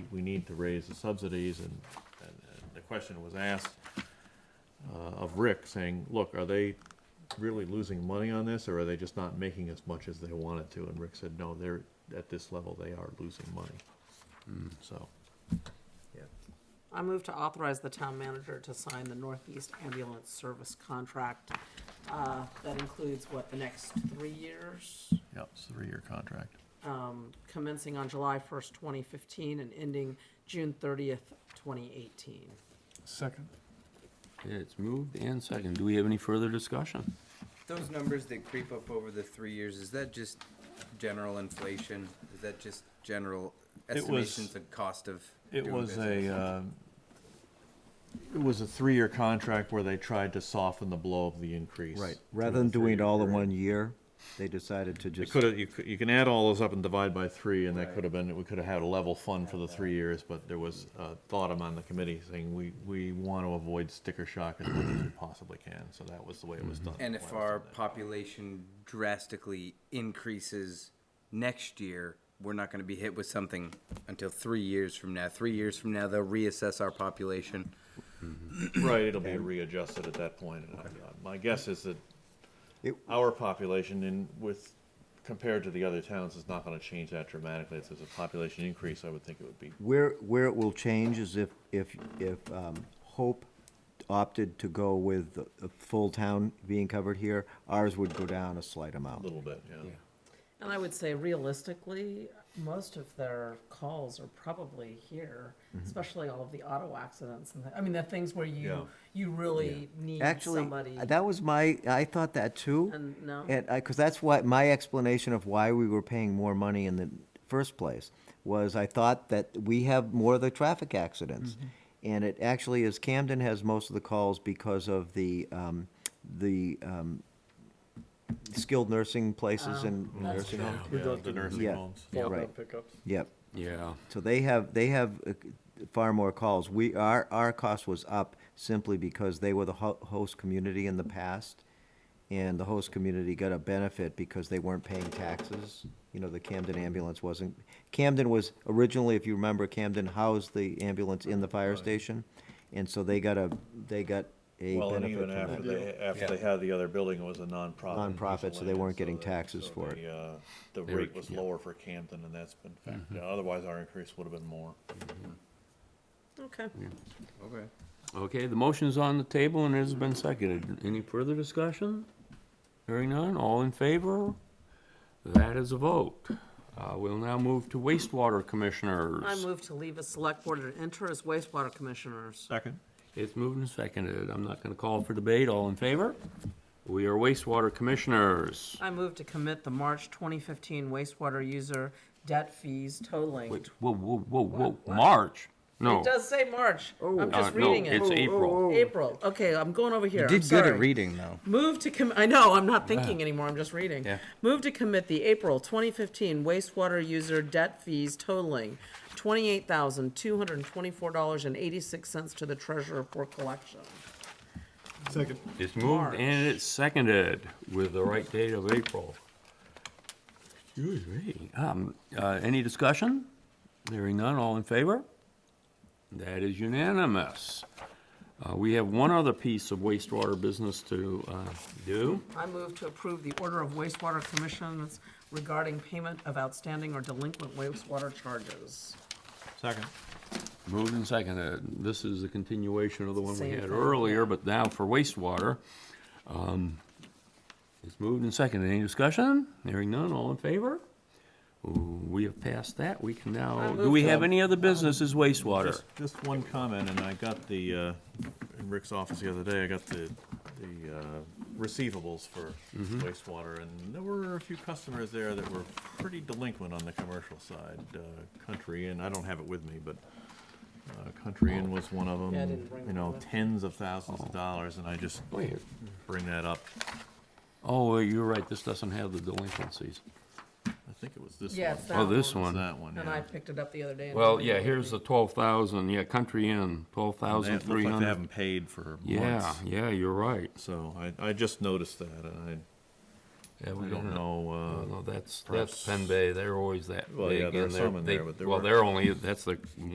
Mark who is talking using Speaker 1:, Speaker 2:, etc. Speaker 1: we- we need to raise the subsidies, and, and and the question was asked uh, of Rick, saying, look, are they really losing money on this, or are they just not making as much as they wanted to? And Rick said, no, they're, at this level, they are losing money. So,
Speaker 2: I move to authorize the town manager to sign the Northeast Ambulance Service contract. uh, That includes, what, the next three years,
Speaker 1: yep, it's a three-year contract.
Speaker 2: um, commencing on July 1st, 2015, and ending June 30th, 2018.
Speaker 3: Second.
Speaker 4: Yeah, It's moved and second. Do we have any further discussion?
Speaker 5: Those numbers that creep up over the three years, is that just general inflation? Is that just general
Speaker 1: It was-
Speaker 5: estimations of cost of
Speaker 1: It
Speaker 5: doing
Speaker 1: was a,
Speaker 5: business?
Speaker 1: um, it was a three-year contract where they tried to soften the blow of the increase.
Speaker 6: Right, rather than doing it all in one year, they decided to
Speaker 1: It
Speaker 6: just,
Speaker 1: could have, you, could- you can add all those up and divide by three, and that
Speaker 5: Right.
Speaker 1: could have been, we could have had a level fund for the three years, but there was a thought among the committee saying, we, we want to avoid sticker shock as much as we possibly can, so that was the way it was done.
Speaker 5: And
Speaker 1: That's
Speaker 5: if
Speaker 1: why it was
Speaker 5: our
Speaker 1: done that way.
Speaker 5: population drastically increases next year, we're not gonna be hit with something until three years from now. Three years from now, they'll reassess our population.
Speaker 1: Right, it'll be readjusted at that point, and uh, my guess is that
Speaker 6: It-
Speaker 1: our population in, with, compared to the other towns, is not gonna change that dramatically, if there's a population increase, I would think it would be
Speaker 6: where, where it will change is if, if, if um, Hope opted to go with the the full town being covered here, ours would go down a slight
Speaker 1: a
Speaker 6: amount.
Speaker 1: little bit, yeah.
Speaker 2: And I would say realistically, most of their calls are probably here,
Speaker 6: Mm-hmm.
Speaker 2: especially all of the auto accidents and, the- I mean, the things where
Speaker 1: Yeah.
Speaker 2: you, you really need
Speaker 6: Actually,
Speaker 2: somebody.
Speaker 6: that was my, I thought that too.
Speaker 2: And no?
Speaker 6: And I, because that's what, my explanation of why we were paying more money in the first place was I thought that we have more of the traffic accidents.
Speaker 2: Mm-hmm.
Speaker 6: And it actually is Camden has most of the calls because of the, um, the, um, skilled nursing places and and
Speaker 2: Oh, that's
Speaker 6: nursing
Speaker 2: true.
Speaker 6: homes.
Speaker 1: Yeah, the nursing
Speaker 6: Yeah.
Speaker 1: homes.
Speaker 6: Yeah, right,
Speaker 3: Pickups.
Speaker 6: yep.
Speaker 4: Yeah.
Speaker 6: So they have, they have uh, far more calls. We, our, our cost was up simply because they were the ho- host community in the past. And the host community got a benefit because they weren't paying taxes. You know, the Camden ambulance wasn't, Camden was originally, if you remember, Camden housed the ambulance in the fire station. And so they got a, they got a
Speaker 1: Well, and
Speaker 6: benefit
Speaker 1: even
Speaker 6: from
Speaker 1: after
Speaker 6: that.
Speaker 1: they, after they had the other building, it was a nonprofit.
Speaker 6: Nonprofit, so they weren't getting
Speaker 1: miscellaneous,
Speaker 6: taxes
Speaker 1: so
Speaker 6: for it.
Speaker 1: the, uh, The
Speaker 4: They were-
Speaker 1: rate was
Speaker 4: yeah. Mm-hmm.
Speaker 1: lower for Camden, and that's been, fact- otherwise our increase would have been more.
Speaker 2: Okay.
Speaker 5: Okay.
Speaker 4: Okay, the motion is on the table and it has been seconded. Any further discussion? Hearing none, all in favor? That is a vote. Uh, we'll now move to wastewater commissioners.
Speaker 2: I move to leave a select board and enter as wastewater commissioners.
Speaker 1: Second.
Speaker 4: It's moved and seconded. I'm not gonna call for debate. All in favor? We are wastewater commissioners.
Speaker 2: I move to commit the March 2015 wastewater user debt fees totaling.
Speaker 4: Wait, whoa, whoa, whoa, whoa,
Speaker 2: What?
Speaker 4: March? No.
Speaker 2: It does say March.
Speaker 5: Oh.
Speaker 2: I'm
Speaker 4: Uh,
Speaker 2: just reading
Speaker 4: No, it's
Speaker 2: it.
Speaker 4: April.
Speaker 2: April. Okay, I'm going over here.
Speaker 5: You
Speaker 2: I'm
Speaker 5: did good
Speaker 2: sorry.
Speaker 5: at reading, though.
Speaker 2: Move to com, I know, I'm not thinking anymore, I'm just reading.
Speaker 5: Yeah.
Speaker 2: Move to commit the April 2015 wastewater user debt fees totaling $28,224.86 to the treasurer for collection.
Speaker 3: Second.
Speaker 4: It's moved
Speaker 2: March.
Speaker 4: and it's seconded with the right date of April. Excuse me. Um, uh, any discussion? Hearing none, all in favor? That is unanimous. Uh, we have one other piece of wastewater business to, uh, do.
Speaker 2: I move to approve the order of wastewater commissions regarding payment of outstanding or delinquent wastewater charges.
Speaker 1: Second.
Speaker 4: Moved and seconded. This is a continuation of the one we
Speaker 2: Same
Speaker 4: had
Speaker 2: thing,
Speaker 4: earlier,
Speaker 2: yeah.
Speaker 4: but now for wastewater. Um, It's moved and seconded. Any discussion? Hearing none, all in favor? Ooh, We have passed that. We can
Speaker 2: I um,
Speaker 4: now, do
Speaker 2: move
Speaker 4: we
Speaker 2: to-
Speaker 4: have any other businesses wastewater?
Speaker 1: Just, just one comment, and I got the, uh, in Rick's office the other day, I got the, the, uh, receivables for
Speaker 4: Mm-hmm.
Speaker 1: wastewater, and there were a few customers there that were pretty delinquent on the commercial side. Uh, Country Inn, I don't have it with me, but, uh, Country Inn was one of them.
Speaker 2: Yeah, I didn't bring
Speaker 1: You
Speaker 2: mine
Speaker 1: know,
Speaker 2: with me.
Speaker 1: tens of thousands of dollars, and I just
Speaker 4: Wait.
Speaker 1: bring that up.
Speaker 4: Oh, well, you're right. This doesn't have the delinquencies.
Speaker 1: I think it was this one.
Speaker 2: Yeah, it's that
Speaker 4: Oh, this
Speaker 1: It's
Speaker 4: one.
Speaker 1: That one,
Speaker 2: And I
Speaker 1: yeah.
Speaker 2: picked it up the other day. and-
Speaker 4: Well, yeah, here's the twelve thousand, yeah, Country Inn, twelve
Speaker 1: They
Speaker 4: thousand
Speaker 1: look
Speaker 4: three
Speaker 1: like they
Speaker 4: hundred.
Speaker 1: haven't paid for
Speaker 4: Yeah,
Speaker 1: months.
Speaker 4: yeah, you're right.
Speaker 1: So I, I just noticed that, and
Speaker 4: Yeah, we
Speaker 1: I don't know, uh,
Speaker 4: Well, that's, that's
Speaker 1: Perhaps-
Speaker 4: Penn Bay, they're always that
Speaker 1: Well, yeah,
Speaker 4: big,
Speaker 1: there are
Speaker 4: and they're,
Speaker 1: some in
Speaker 4: they,
Speaker 1: there, but there
Speaker 4: well,
Speaker 1: were-
Speaker 4: they're only, that's the